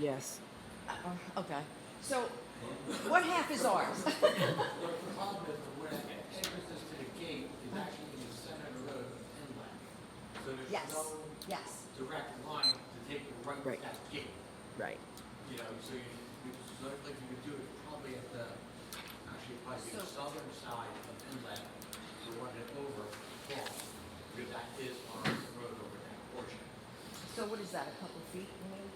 Yes. Uh, Okay, so what half is ours? The problem is where it enters us to the gate is actually in the center of the road inland. So Yes, there's no yes. direct line to take the right Right. to that gate. Right. You know, so you, you- so like you could do it probably at the, actually probably the So- southern side of inland. You want it over, across, because that is our road over that portion. So what is that, a couple of feet? maybe?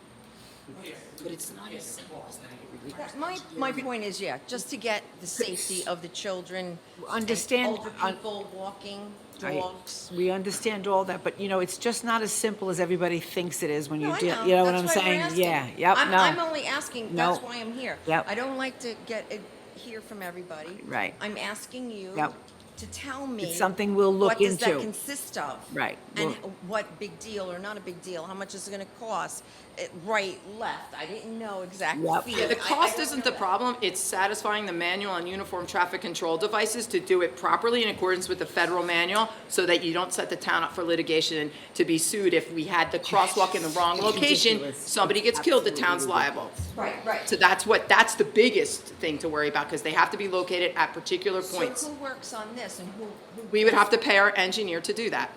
But it's not as simple as that. That- My, my point is, yeah, just to get the safety of the children. Understand- and Older un- people walking, I- dogs. We understand all that, but you know, it's just not as simple as everybody thinks it is when you No, I deal, you know what I'm That's why we're saying? asking. Yeah, yep, I'm- no. I'm only asking, that's No. why I'm here. Yep. I don't like to get, it- hear from everybody. Right. I'm asking you Yep. to tell me. It's something we'll look What does that into. consist of? Right. And We'll- what big deal or not a big deal? How much is it gonna cost? Eh, Right, left, I didn't know exactly. Yep. Yeah, the cost isn't the problem, it's satisfying the manual on uniform traffic control devices to do it properly in accordance with the federal manual, so that you don't set the town up for litigation to be sued if we had the crosswalk in the wrong location, ridiculous. somebody gets killed, the town's liable. Right, right. So that's what, that's the biggest thing to worry about, because they have to be located at particular points. So who works on this and who, who? We would have to pay our engineer to do that.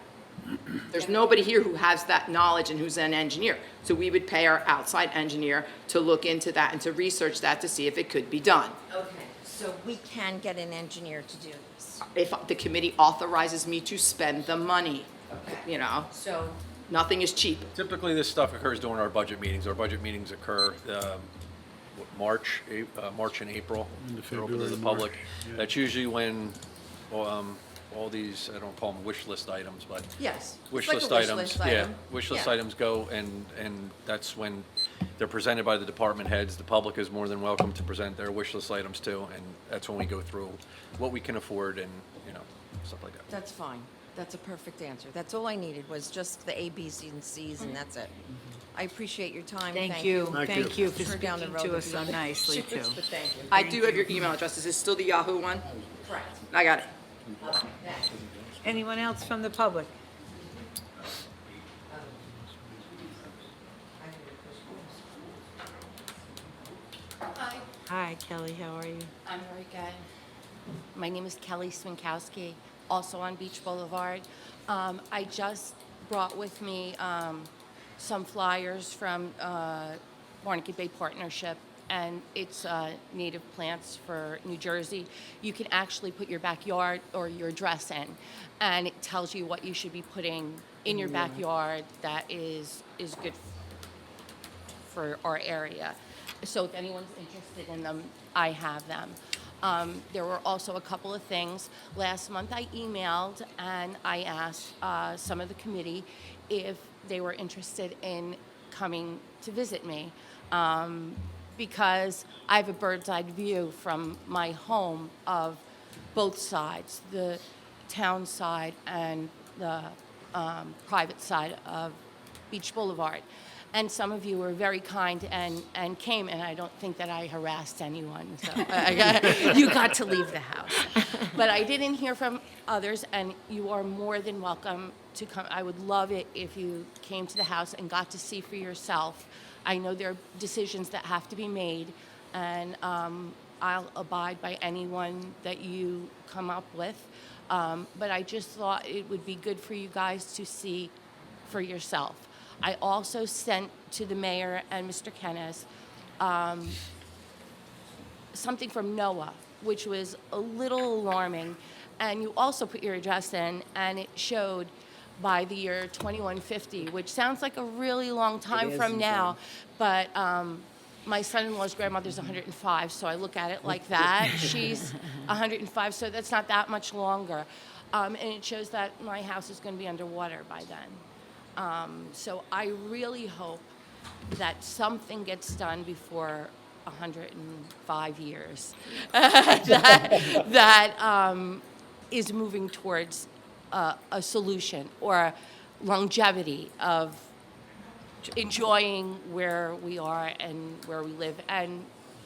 There's nobody here who has that knowledge and who's an engineer. So we would pay our outside engineer to look into that and to research that to see if it could be done. Okay, so we can get an engineer to do this. If the committee authorizes me to spend the money, you know, So, nothing is cheap. Typically, this stuff occurs during our budget meetings. Our budget meetings occur um, what, March, Ap- uh, March and April. Into They're open to February the and public. March, yeah. That's usually when um, all these, I don't call them wish list items, but yes. it's wish like a list items, list yeah, item. wish list Yeah. items go, and, and that's when they're presented by the department heads. The public is more than welcome to present their wish list items too, and that's when we go through what we can afford and, you know, stuff like that. That's fine. That's a perfect answer. That's all I needed was just the A, B, C, and Cs, and that's it. I appreciate your time. Thank you, Thank thank you. you for Turn down the speaking road to us if so you- nicely too. But thank you. I do have your email address. Is this still the Yahoo one? Correct. I got it. Okay, thanks. Anyone else from the public? Hi, Hi, Kelly, how are you? I'm very good. My name is Kelly Swinkowski, also on Beach Boulevard. Um, I just brought with me um, some flyers from uh, Barnegat Bay Partnership, and it's uh, native plants for New Jersey. You can actually put your backyard or your dress in, and it tells you what you should be putting in your backyard that is, is good for our area. So if anyone's interested in them, I have them. Um, there were also a couple of things. Last month, I emailed and I asked uh, some of the committee if they were interested in coming to visit me um, because I have a bird's eye view from my home of both sides, the town side and the um, private side of Beach Boulevard. And some of you were very kind and, and came, and I don't think that I harassed anyone. So I got, you got to leave the house. But I didn't hear from others, and you are more than welcome to come. I would love it if you came to the house and got to see for yourself. I know there are decisions that have to be made, and um, I'll abide by anyone that you come up with. Um, but I just thought it would be good for you guys to see for yourself. I also sent to the mayor and Mr. Kennes something from NOAA, which was a little alarming. And you also put your address in, and it showed by the year 2150, which sounds like a really long time is, from in now. But um, my son-in-law's grandmother's 105, so I look at it like that. She's 105, so that's not that much longer. Um, and it shows that my house is going to be underwater by then. Um, so I really hope that something gets done before 105 years that, that um, is moving towards uh, a solution or longevity of enjoying where we are and where we live and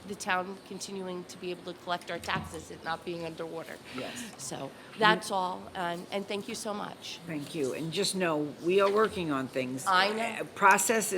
the town continuing to be able to collect our taxes and not being underwater. Yes. So that's all, and, and thank you so much. Thank you, and just know, we are working on things. Uh, I know. Process